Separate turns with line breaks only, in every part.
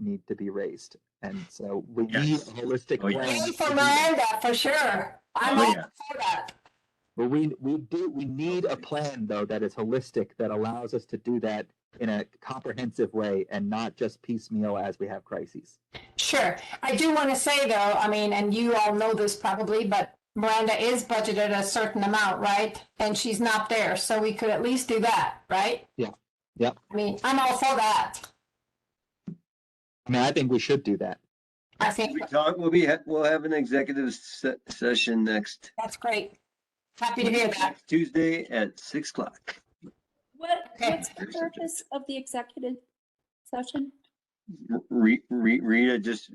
need to be raised. And so we need
Yes.
a holistic
Oh, yes.
plan.
Even
to
for
do
Miranda, for sure. I'm
Oh,
all
yeah.
for that.
But we, we do, we need a plan though that is holistic, that allows us to do that in a comprehensive way and not just piecemeal as we have crises.
Sure. I do want to say though, I mean, and you all know this probably, but Miranda is budgeted a certain amount, right? And she's not there, so we could at least do that, right?
Yeah. Yep.
I mean, I'm all for that.
I mean, I think we should do that.
I think
We talk, we'll be, ha- we'll have an executive se- session next.
that's great. Happy to hear that.
next Tuesday at six o'clock.
What,
Okay.
what's the purpose of the executive session?
Re, re, Rita, just,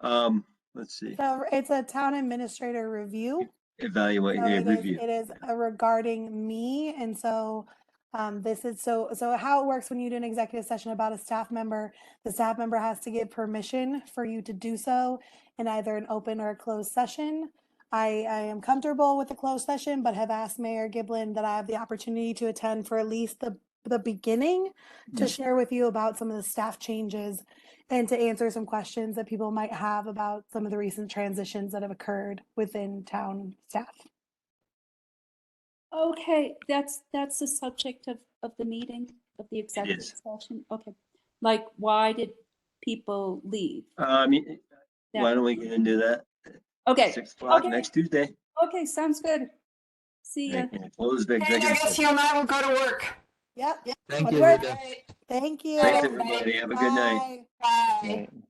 um, let's see,
So it's a town administrator review.
evaluate,
So
yeah,
it is,
review.
it is uh, regarding me. And so um, this is so, so how it works when you do an executive session about a staff member, the staff member has to give permission for you to do so in either an open or a closed session. I, I am comfortable with the closed session, but have asked Mayor Giblin that I have the opportunity to attend for at least the, the beginning to share with you about some of the staff changes and to answer some questions that people might have about some of the recent transitions that have occurred within town staff.
Okay, that's, that's the subject of, of the meeting, of the executive
is.
session, okay. Like, why did people leave?
Um, y- why
That-
don't we get into that?
Okay,
Six o'clock
okay.
next Tuesday.
okay, sounds good. See ya.
And Close the
And I
executive
guess
session.
you and I will go to work.
Yep.
Thank you,
Well,
Rita.
Thank you.
Thanks, everybody. Have a good night.
Bye.
Bye.
Right.